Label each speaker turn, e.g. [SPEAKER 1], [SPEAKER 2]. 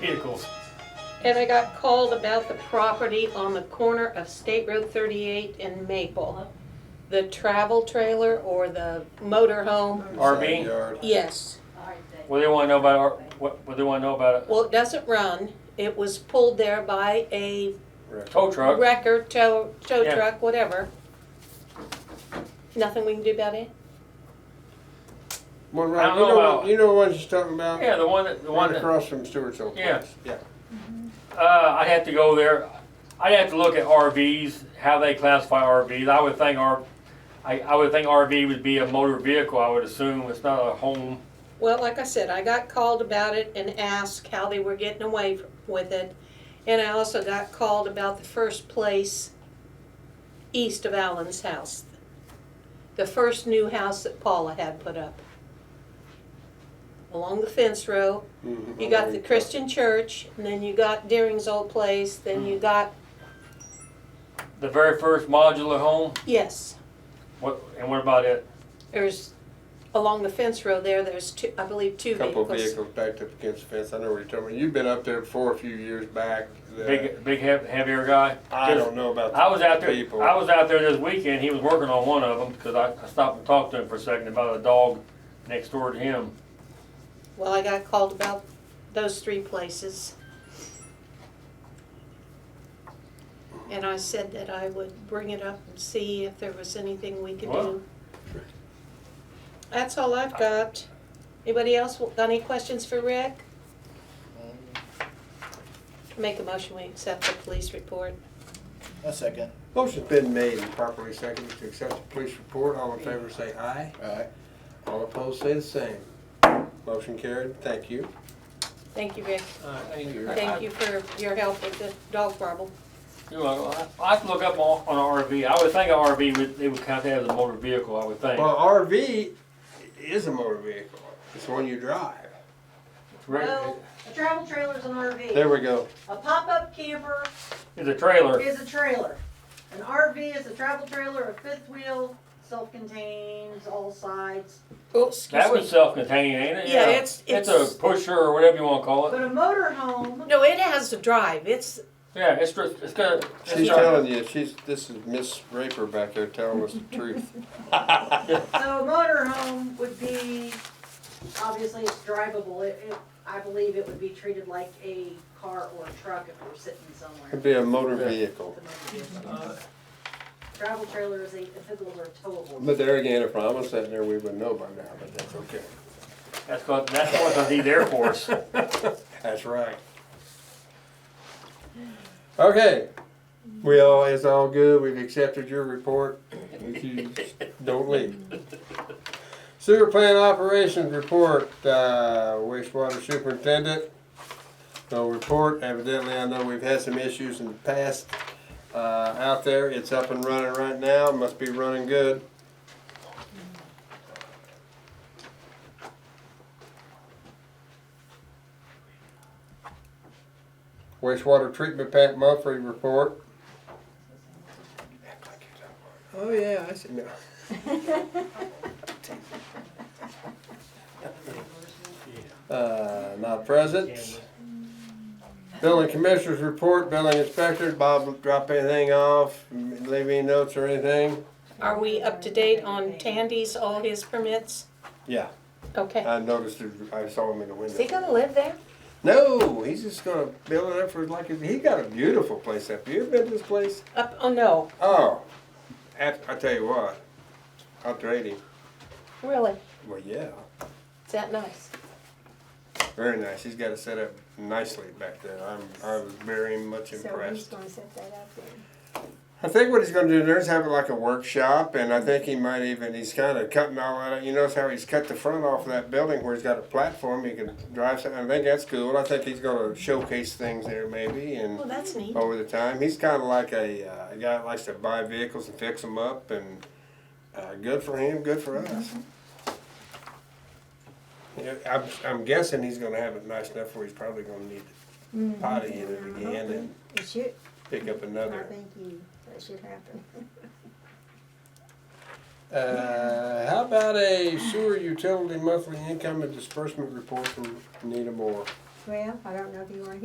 [SPEAKER 1] vehicles.
[SPEAKER 2] And I got called about the property on the corner of State Road 38 and Maple. The travel trailer or the motor home?
[SPEAKER 1] RV?
[SPEAKER 3] Side yard.
[SPEAKER 2] Yes.
[SPEAKER 1] What do they want to know about? Our, what, what do they want to know about
[SPEAKER 2] Well, it doesn't run. It was pulled there by a
[SPEAKER 1] a tow truck?
[SPEAKER 2] wrecker, tow, tow
[SPEAKER 1] Yeah.
[SPEAKER 2] truck, whatever. Nothing we can do about it?
[SPEAKER 3] One
[SPEAKER 1] I
[SPEAKER 3] right,
[SPEAKER 1] don't
[SPEAKER 3] you
[SPEAKER 1] know
[SPEAKER 3] know,
[SPEAKER 1] about-
[SPEAKER 3] what- you know the one she's talking about?
[SPEAKER 1] Yeah, the one that the one
[SPEAKER 3] Right
[SPEAKER 1] that
[SPEAKER 3] across from Stewart's old
[SPEAKER 1] Yeah.
[SPEAKER 3] place. Yeah.
[SPEAKER 1] Uh, I'd have to go there. I'd have to look at RVs, how they classify RVs. I would think R, I, I would think RV would be a motor vehicle. I would assume it's not a home.
[SPEAKER 2] Well, like I said, I got called about it and asked how they were getting away f- with it. And I also got called about the first place east of Allen's house. The first new house that Paula had put up. Along the fence row,
[SPEAKER 3] Mhm.
[SPEAKER 2] you got the Christian church, and then you got Deering's old place, then you got,
[SPEAKER 1] The very first modular home.
[SPEAKER 2] yes,
[SPEAKER 1] What and what about it?
[SPEAKER 2] there's, along the fence row there, there's two, I believe, two
[SPEAKER 3] Couple
[SPEAKER 2] vehicles.
[SPEAKER 3] vehicles backed up against the fence. I know what you're talking about. You've been up there before a few years back. The-
[SPEAKER 1] Big big heav- heavier guy.
[SPEAKER 3] I don't know about.
[SPEAKER 1] I was
[SPEAKER 3] the
[SPEAKER 1] out there.
[SPEAKER 3] People.
[SPEAKER 1] I was out there this weekend. He was working on one of them because I, I stopped and talked to him for a second about a dog next door to him.
[SPEAKER 2] Well, I got called about those three places. And I said that I would bring it up and see if there was anything we could
[SPEAKER 1] Well.
[SPEAKER 2] do. That's all I've got. Anybody else wa- got any questions for Rick? Make a motion, we accept the police report.
[SPEAKER 4] A second.
[SPEAKER 3] Motion's been made and properly seconded to accept the police report. All in favor say aye.
[SPEAKER 4] Aye.
[SPEAKER 3] All opposed say the same. Motion carried. Thank you.
[SPEAKER 2] Thank you, Rick.
[SPEAKER 1] Uh, thank you.
[SPEAKER 2] Thank you for your help with the dog problem.
[SPEAKER 1] You know, I, I have to look up on, on an RV. I would think an RV would they would count that as a motor vehicle. I would think.
[SPEAKER 3] Well, RV is a motor vehicle. It's one you drive.
[SPEAKER 1] Right.
[SPEAKER 5] No, a travel trailer's an
[SPEAKER 3] There
[SPEAKER 5] RV.
[SPEAKER 3] we go.
[SPEAKER 5] A pop-up camper
[SPEAKER 1] It's a trailer.
[SPEAKER 5] is a trailer. An RV is a travel trailer, a fifth wheel, self-contained, all sides.
[SPEAKER 2] Oh, excuse
[SPEAKER 1] That was
[SPEAKER 2] me.
[SPEAKER 1] self-contained, ain't it?
[SPEAKER 2] Yeah, it's,
[SPEAKER 1] It's
[SPEAKER 2] it's,
[SPEAKER 1] a pusher or whatever you want to call it.
[SPEAKER 5] But a motor home,
[SPEAKER 2] no, it has the drive. It's,
[SPEAKER 1] Yeah, it's just, it's gonna. it's
[SPEAKER 3] She's
[SPEAKER 1] not-
[SPEAKER 3] telling you. She's this is Miss Raper back there telling us the truth.
[SPEAKER 5] so a motor home would be, obviously it's drivable. It, it, I believe it would be treated like a car or a truck if we're sitting somewhere.
[SPEAKER 3] It'd be a motor
[SPEAKER 1] Yeah.
[SPEAKER 3] vehicle.
[SPEAKER 5] Travel trailer is a, if it was a towable.
[SPEAKER 3] But there again, if I was sitting there, we would know by now, but that's okay.
[SPEAKER 1] That's called, that's what the need Air Force.
[SPEAKER 3] That's right. Okay, we all, it's all good, we've accepted your report, if you don't leave. Sewer plant operations report, uh, wastewater superintendent, no report, evidently I know we've had some issues in the past, uh, out there, it's up and running right now, must be running good. Wastewater treatment plant monthly report. Oh, yeah, I see. No. Uh, not present. Building commissioners report, building inspector, Bob drop anything off, leave any notes or anything?
[SPEAKER 2] Are we up to date on Tandy's, all his permits?
[SPEAKER 3] Yeah,
[SPEAKER 2] Okay.
[SPEAKER 3] I noticed, it- I saw him in the window.
[SPEAKER 2] Is he gonna live there?
[SPEAKER 3] No, he's just gonna build it up for like, he got a beautiful place up here, you been to this place?
[SPEAKER 2] Up, oh no,
[SPEAKER 3] Oh, at, I tell you what, after eighty,
[SPEAKER 2] really?
[SPEAKER 3] well, yeah,
[SPEAKER 2] Is that nice?
[SPEAKER 3] very nice. He's got it set up nicely back there. I'm, I was very much impressed.
[SPEAKER 6] gonna set that up then?
[SPEAKER 3] I think what he's going to do there is have it like a workshop, and I think he might even he's kind of cutting all that. out. You notice how he's cut the front off of that building where he's got a platform he can drive. Something. I think that's cool. I think he's going to showcase things there maybe, and
[SPEAKER 2] Well, that's neat.
[SPEAKER 3] over the time. He's kind of like a, uh, a guy that likes to buy vehicles and fix them up, and uh, good for him, good for us. Yeah, I'm, I'm guessing he's going to have it nice enough where he's probably going to need to potty in it again and
[SPEAKER 6] It should,
[SPEAKER 3] pick up
[SPEAKER 6] I
[SPEAKER 3] another.
[SPEAKER 6] think you, that should happen.
[SPEAKER 3] Uh, how about a sewer utility monthly income and disbursement report from Nita Moore?
[SPEAKER 6] Well,
[SPEAKER 5] Well, I don't know if you wanna